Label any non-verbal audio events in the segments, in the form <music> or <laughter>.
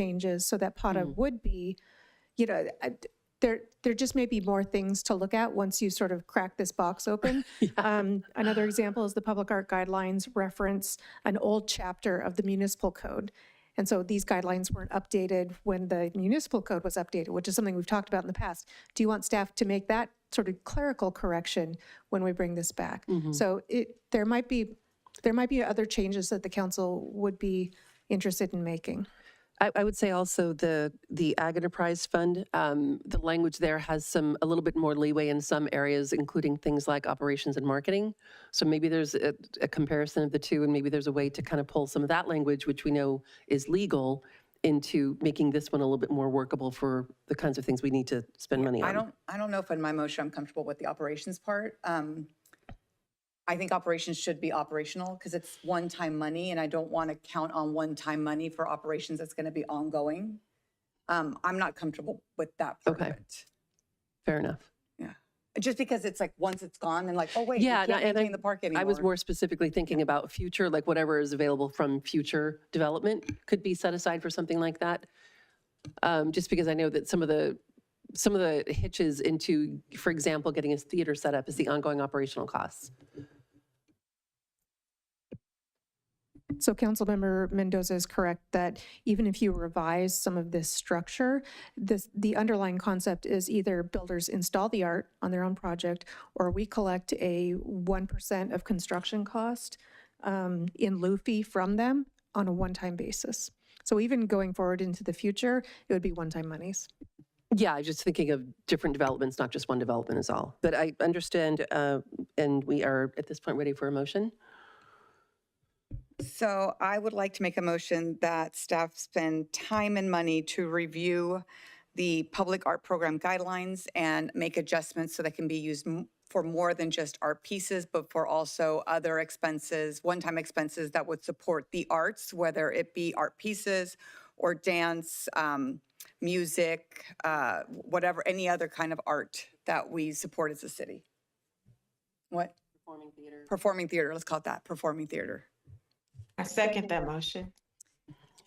changes, so that PATA would be, you know, I- there, there just may be more things to look at once you sort of crack this box open. Um, Another example is the Public Art Guidelines reference an old chapter of the municipal code. And so these guidelines weren't updated when the municipal code was updated, which is something we've talked about in the past. Do you want staff to make that sort of clerical correction when we bring this back? So it, there might be, there might be other changes that the council would be interested in making. I, I would say also the, the Ag Enterprise Fund, um, the language there has some, a little bit more leeway in some areas, including things like operations and marketing. So maybe there's a, a comparison of the two, and maybe there's a way to kind of pull some of that language, which we know is legal, into making this one a little bit more workable for the kinds of things we need to spend money on. I don't, I don't know if in my motion I'm comfortable with the operations part. Um, I think operations should be operational because it's one-time money and I don't want to count on one-time money for operations that's going to be ongoing. Um, I'm not comfortable with that part of Okay. it. Fair enough. Just because it's like, once it's gone and like, oh, wait, we Yeah, can't no, and I- maintain the park anymore. I was more specifically thinking about future, like whatever is available from future development could be set aside for something like that. Um, Just because I know that some of the, some of the hitches into, for example, getting a theater set up is the ongoing operational costs. So Councilmember Mendoza is correct that even if you revise some of this structure, this, the underlying concept is either builders install the art on their own project, or we collect a 1% of construction cost um, in lieu fee from them on a one-time basis. So even going forward into the future, it would be one-time monies. Yeah, I was just thinking of different developments, not just one development is all. But I understand, uh, and we are at this point ready for a motion. So I would like to make a motion that staff spend time and money to review the public art program guidelines and make adjustments so they can be used m- for more than just art pieces, but for also other expenses, one-time expenses that would support the arts, whether it be art pieces or dance, um, music, uh, whatever, any other kind of art that we support as a city. What? Performing theater. Performing theater, let's call it that, performing theater. I second that motion.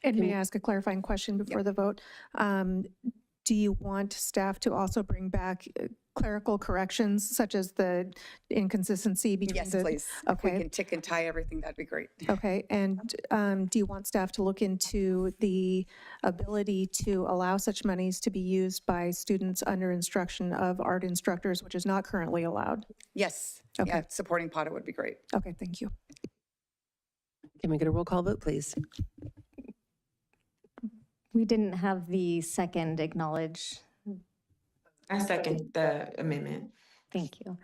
And may I ask a clarifying question before the vote? Um, Do you want staff to also bring back uh, clerical corrections such as the inconsistency between Yes, the- please. If we okay. can tick and tie everything, that'd be great. Okay, and um, do you want staff to look into the ability to allow such monies to be used by students under instruction of art instructors, which is not currently allowed? Yes. Okay. Yeah, supporting PATA would be great. Okay, thank you. Can we get a roll call vote, please? We didn't have the second acknowledge. I second the amendment. Thank you.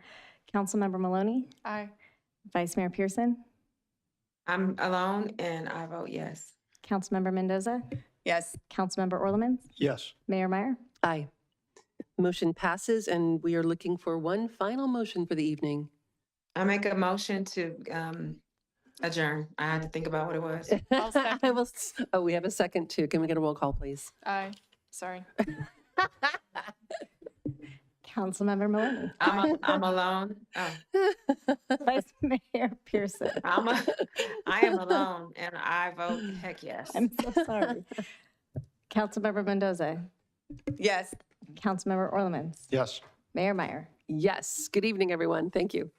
Councilmember Maloney, Aye. Vice Mayor Pearson, I'm alone and I vote yes. Councilmember Mendoza, Yes, Councilmember Orlemans, Yes, Mayor Meyer. Aye. Motion passes, and we are looking for one final motion for the evening. I make a motion to um, adjourn. I had to think about what it was. <laughs> I will, s- oh, we have a second too. Can we get a roll call, please? Aye, sorry. Councilmember Maloney, I'm, a- I'm alone. Oh, Vice Mayor Pearson. I'm, a- <laughs> I am alone and I vote heck yes. I'm so sorry. Councilmember Mendoza, yes. Councilmember Orlemans, yes. Mayor Meyer. Yes. Good evening, everyone. Thank you.